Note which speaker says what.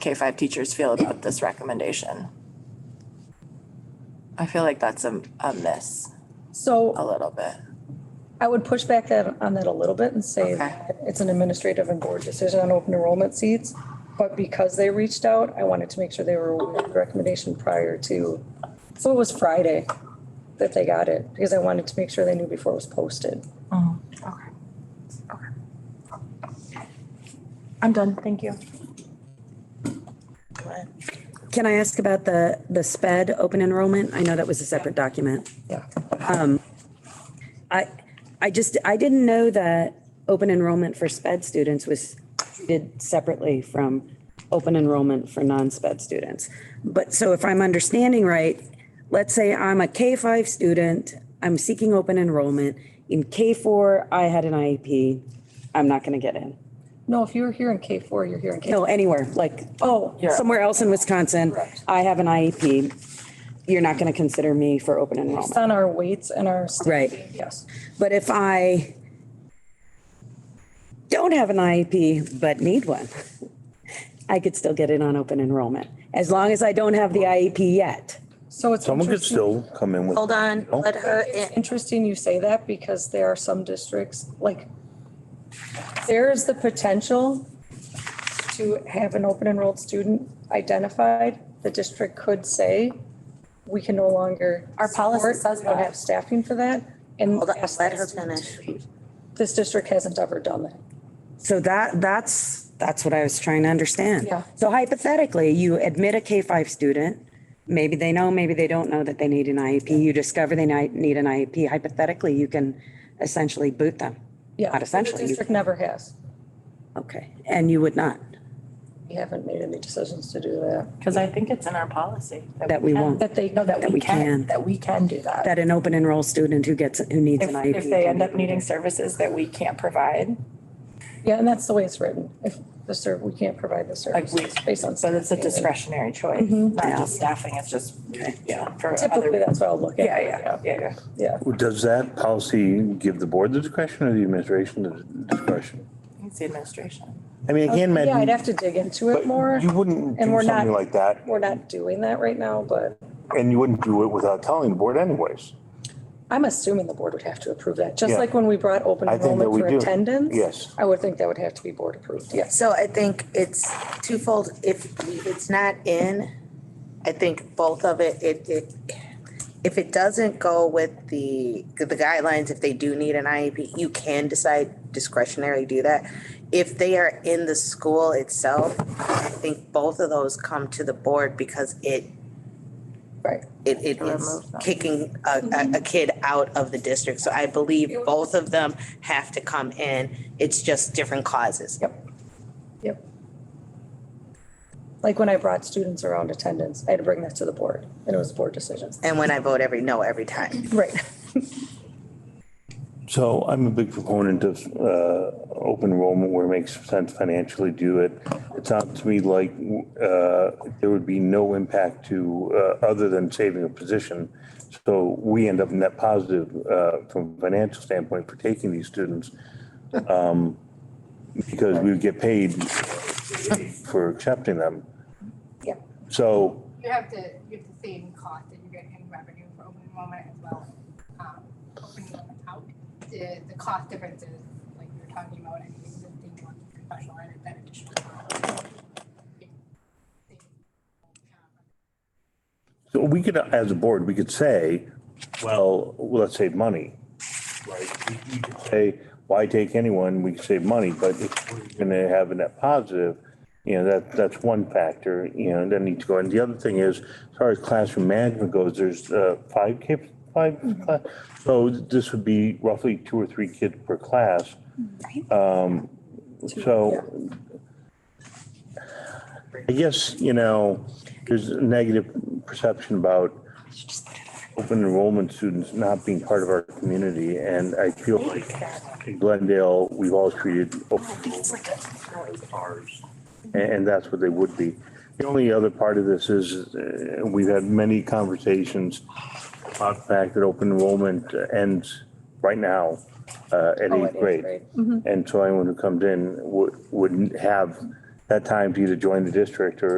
Speaker 1: K-5 teachers feel about this recommendation. I feel like that's a, a miss a
Speaker 2: So
Speaker 1: little bit.
Speaker 2: I would push back that, on that a little bit and say
Speaker 1: Okay.
Speaker 2: that it's an administrative and board decision on open enrollment seats. But because they reached out, I wanted to make sure they were aware of the recommendation prior to, so it was Friday that they got it, because I wanted to make sure they knew before it was posted.
Speaker 3: Okay, okay. I'm done, thank you.
Speaker 4: Can I ask about the, the SPED open enrollment? I know that was a separate document. Um,
Speaker 2: Yeah.
Speaker 4: I, I just, I didn't know that open enrollment for SPED students was treated separately from open enrollment for non-SPED students. But so if I'm understanding right, let's say I'm a K-5 student, I'm seeking open enrollment. In K-4, I had an IEP, I'm not going to get in.
Speaker 2: No, if you were here in K four, you're here in K.
Speaker 4: No, anywhere, like,
Speaker 2: Oh,
Speaker 4: somewhere else in Wisconsin, I have an IEP. You're not going to consider me for open enrollment.
Speaker 2: it's on our weights and our.
Speaker 4: Right.
Speaker 2: Yes.
Speaker 4: But if I don't have an IEP but need one, I could still get in on open enrollment as long as I don't have the IEP yet.
Speaker 2: So it's.
Speaker 5: Someone could
Speaker 2: interesting.
Speaker 5: still come in with.
Speaker 6: Hold on,
Speaker 5: No.
Speaker 6: let her, in.
Speaker 2: interesting you say that because there are some districts, like, there is the potential to have an open enrolled student identified. The district could say, we can no longer.
Speaker 1: Our policy
Speaker 2: support,
Speaker 1: says
Speaker 2: We don't
Speaker 1: that.
Speaker 2: have staffing for that. And
Speaker 6: hold on,
Speaker 2: ask
Speaker 6: let
Speaker 2: that
Speaker 6: her
Speaker 2: student to
Speaker 6: finish.
Speaker 2: leave. This district hasn't ever done that.
Speaker 4: So that, that's, that's what I was trying to understand.
Speaker 1: Yeah.
Speaker 4: So hypothetically, you admit a K-5 student, maybe they know, maybe they don't know that they need an IEP. You discover they ni- need an IEP. Hypothetically, you can essentially boot them.
Speaker 2: Yeah.
Speaker 4: Not essentially,
Speaker 2: The
Speaker 4: you-
Speaker 2: district never has.
Speaker 4: Okay, and you would not,
Speaker 2: We haven't made any decisions to do that.
Speaker 3: Because I think it's in our policy.
Speaker 4: That we
Speaker 3: can-
Speaker 4: won't.
Speaker 2: That they,
Speaker 3: No, that we
Speaker 4: we
Speaker 3: can,
Speaker 4: can.
Speaker 3: that we can do that.
Speaker 4: that an open enroll student who gets, who needs
Speaker 3: If,
Speaker 4: an IEP.
Speaker 3: if they
Speaker 4: can
Speaker 3: end
Speaker 4: be
Speaker 3: up needing services that we can't provide,
Speaker 2: yeah, and that's the way it's written. If the serv, we can't provide the
Speaker 3: like we,
Speaker 2: service based on.
Speaker 3: so it's a
Speaker 2: staffing.
Speaker 3: discretionary choice, not just staffing, it's just, yeah, for other.
Speaker 2: Typically, that's what I'll look at.
Speaker 3: Yeah, yeah, yeah, yeah.
Speaker 2: Yeah.
Speaker 5: Does that policy give the board the discretion or the administration the discretion?
Speaker 3: It's the administration.
Speaker 5: I mean, I can't
Speaker 2: Yeah, I'd
Speaker 5: imagine,
Speaker 2: have to dig into
Speaker 5: but
Speaker 2: it more.
Speaker 5: you
Speaker 2: and
Speaker 5: wouldn't do
Speaker 2: we're not-
Speaker 5: something like that,
Speaker 2: We're not doing that right now, but
Speaker 5: and you wouldn't do it without telling the board anyways.
Speaker 2: I'm assuming the board would have to approve that, just
Speaker 5: Yeah.
Speaker 2: like when we brought open
Speaker 5: I think that
Speaker 2: enrollment
Speaker 5: we
Speaker 2: for
Speaker 5: do.
Speaker 2: attendance.
Speaker 5: Yes.
Speaker 2: I would think that would have to be board approved, yes.
Speaker 6: so I think it's twofold, if it's not in, I think both of it, it, it, if it doesn't go with the, the guidelines, if they do need an IEP, you can decide discretionary do that. If they are in the school itself, I think both of those come to the board because it
Speaker 2: Right.
Speaker 6: it, it is kicking a, a, a kid out of the district. So I believe both of them have to come in. It's just different causes.
Speaker 2: Yep. Like when I brought students around attendance, I had to bring that to the board, and it was board decisions.
Speaker 6: And when I vote every no every time.
Speaker 2: Right.
Speaker 5: So I'm a big proponent of uh, open enrollment where it makes sense financially to do it. It sounds to me like uh, there would be no impact to, uh, other than saving a position. So we end up net positive uh, from a financial standpoint for taking these students um, because we would get paid for accepting them.
Speaker 2: Yeah.
Speaker 5: So
Speaker 7: you have to, you have to save in cost and you're getting revenue for open enrollment as well as, um, open enrollment out. The, the cost differences, like you were talking about, and the existing one, professional and that additional. cost. Um,
Speaker 5: So we could, as a board, we could say, well, let's save money. Right? We- we could Say, why take anyone? We can save money, but if we're gonna have a net positive, you know, that, that's one factor, you know, that needs to go. And the other thing is, as far as classroom management goes, there's uh, five kids, five, cla- so this would be roughly two or three kids per class. Um, So I guess, you know, there's a negative perception about open enrollment students not being part of our community, and I feel like in Glendale, we've always treated open enrollment as ours, and, and that's what they would be. The only other part of this is, uh, we've had many conversations about the fact that open enrollment uh, ends right now uh, at
Speaker 2: Oh, at
Speaker 5: eighth
Speaker 2: eighth
Speaker 5: grade.
Speaker 2: grade.
Speaker 5: And so anyone who comes in would, wouldn't have that time to either join the district or